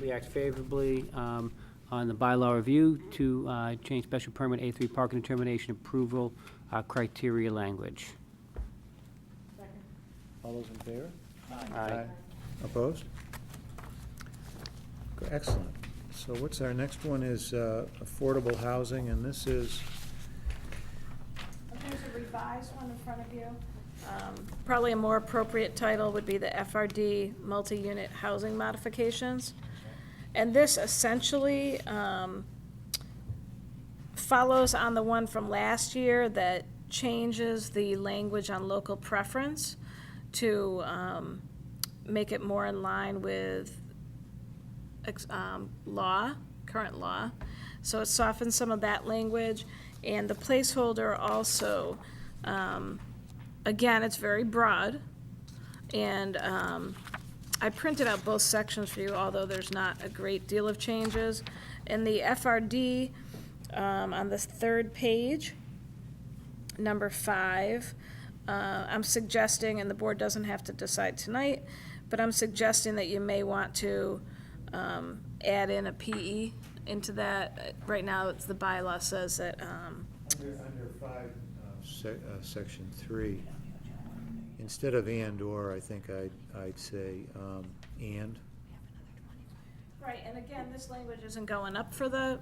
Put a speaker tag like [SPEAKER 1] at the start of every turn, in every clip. [SPEAKER 1] React favorably um, on the bylaw review to uh, change special permit A3 parking determination approval uh, criteria language.
[SPEAKER 2] All those in favor?
[SPEAKER 1] Aye.
[SPEAKER 2] Opposed? Go- Excellent. So what's our next one is uh, affordable housing, and this is,
[SPEAKER 3] There's a revised one in front of you. Um, Probably a more appropriate title would be the FRD Multi-Unit Housing Modifications. And this essentially um, follows on the one from last year that changes the language on local preference to um, make it more in line with ex- um, law, current law. So it softens some of that language. And the placeholder also, um, again, it's very broad. And um, I printed out both sections for you, although there's not a great deal of changes. In the FRD, um, on the third page, number five, uh, I'm suggesting, and the board doesn't have to decide tonight, but I'm suggesting that you may want to um, add in a PE into that. Uh, Right now, it's, the bylaw says that, um,
[SPEAKER 2] under under five, uh, sec- uh, section three, instead of and/or, I think I'd, I'd say um, and.
[SPEAKER 3] Right, and again, this language isn't going up for the,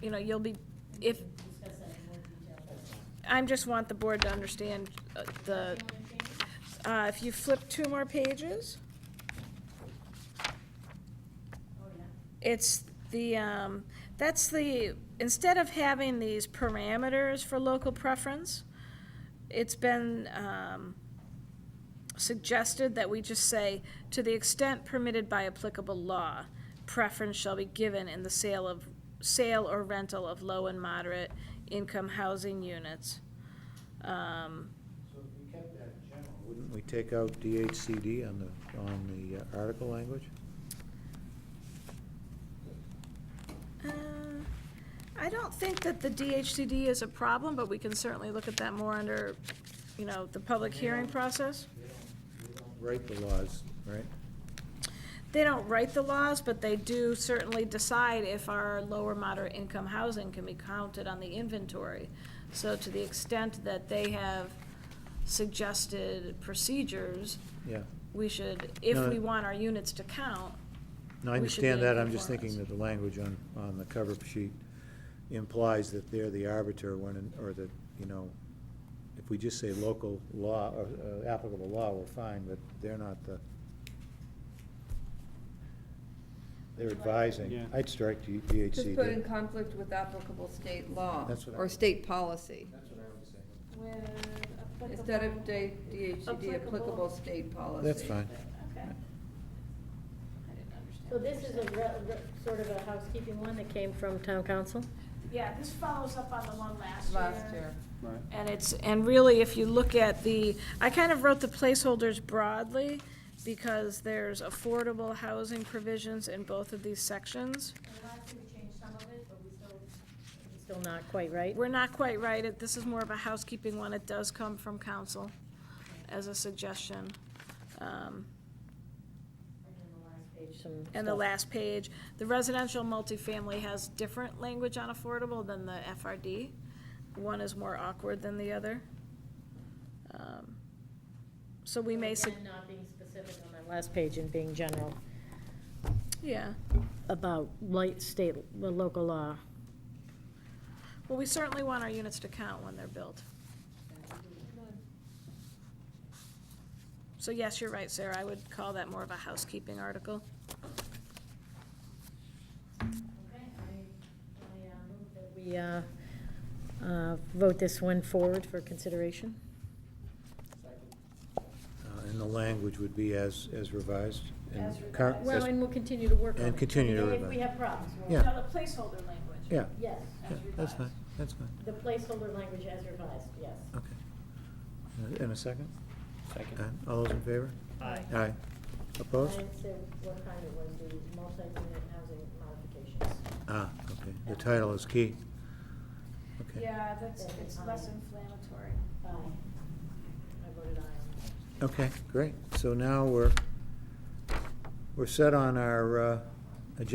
[SPEAKER 3] you know, you'll be, if. I'm just want the board to understand uh, the, uh, if you flip two more pages. It's the, um, that's the, instead of having these parameters for local preference, it's been, um, suggested that we just say, to the extent permitted by applicable law, preference shall be given in the sale of, sale or rental of low and moderate income housing units. Um,
[SPEAKER 2] So if we kept that general. Wouldn't we take out DHCD on the, on the uh, article language?
[SPEAKER 3] uh, I don't think that the DHCD is a problem, but we can certainly look at that more under, you know, the public hearing process.
[SPEAKER 2] Write the laws, right?
[SPEAKER 3] They don't write the laws, but they do certainly decide if our lower moderate income housing can be counted on the inventory. So to the extent that they have suggested procedures,
[SPEAKER 2] Yeah.
[SPEAKER 3] we should, if
[SPEAKER 2] No.
[SPEAKER 3] we want our units to count,
[SPEAKER 2] No, I
[SPEAKER 3] we should be
[SPEAKER 2] understand
[SPEAKER 3] in
[SPEAKER 2] that, I'm just
[SPEAKER 3] conformance.
[SPEAKER 2] thinking that the language on, on the cover sheet implies that they're the arbiter when, in- or that, you know, if we just say local law, or uh, applicable law, we're fine, but they're not the, they're advising.
[SPEAKER 1] Yeah.
[SPEAKER 2] I'd strike D-
[SPEAKER 4] Just put in
[SPEAKER 2] DHCD.
[SPEAKER 4] conflict with applicable state law.
[SPEAKER 2] That's what I-
[SPEAKER 4] Or state policy.
[SPEAKER 2] That's what I would say.
[SPEAKER 3] with applicable.
[SPEAKER 4] Instead of D- DHCD,
[SPEAKER 3] Applicable.
[SPEAKER 4] applicable state policy.
[SPEAKER 2] That's fine.
[SPEAKER 3] Okay. I didn't understand.
[SPEAKER 5] So
[SPEAKER 3] what
[SPEAKER 5] this
[SPEAKER 3] you
[SPEAKER 5] is a
[SPEAKER 3] said.
[SPEAKER 5] re- re- sort of a housekeeping one that came from town council?
[SPEAKER 3] Yeah, this follows up on the one
[SPEAKER 4] Last year.
[SPEAKER 3] And it's, and really, if you look at the, I kind of wrote the placeholders broadly because there's affordable housing provisions in both of these sections.
[SPEAKER 5] Still not quite right?
[SPEAKER 3] We're not quite right. It- This is more of a housekeeping one. It does come from council as a suggestion. Um,
[SPEAKER 5] Some
[SPEAKER 3] And the
[SPEAKER 5] stuff.
[SPEAKER 3] last page, the residential multifamily has different language on affordable than the FRD. One is more awkward than the other. Um, So we may, sug-
[SPEAKER 5] Again, not being specific on that last page and being general
[SPEAKER 3] yeah.
[SPEAKER 5] about light state, well, local law.
[SPEAKER 3] Well, we certainly want our units to count when they're built. So yes, you're right, Sarah, I would call that more of a housekeeping article.
[SPEAKER 5] Okay, I, I move that we, uh, uh, vote this one forward for consideration.
[SPEAKER 2] Uh, And the language would be as, as revised? and cur-
[SPEAKER 5] Well,
[SPEAKER 2] as-
[SPEAKER 5] and we'll continue to work on it.
[SPEAKER 2] And continue to
[SPEAKER 5] And
[SPEAKER 2] revise.
[SPEAKER 5] If we have problems, we'll.
[SPEAKER 2] Yeah.
[SPEAKER 3] Now, the placeholder language.
[SPEAKER 2] Yeah,
[SPEAKER 5] Yes,
[SPEAKER 2] yeah, that's fine,
[SPEAKER 5] revised.
[SPEAKER 2] that's fine,
[SPEAKER 5] The placeholder language as revised, yes.
[SPEAKER 2] okay. Uh, In a second? Second. All those in favor? Aye. Aye. Opposed?
[SPEAKER 5] And so what kind it was, the multi-unit housing modifications.
[SPEAKER 2] Ah, okay, the title is key. Okay.
[SPEAKER 3] Yeah, that's, it's less inflammatory.
[SPEAKER 5] Aye. I voted aye.
[SPEAKER 2] Okay, great. So now we're, we're set on our uh,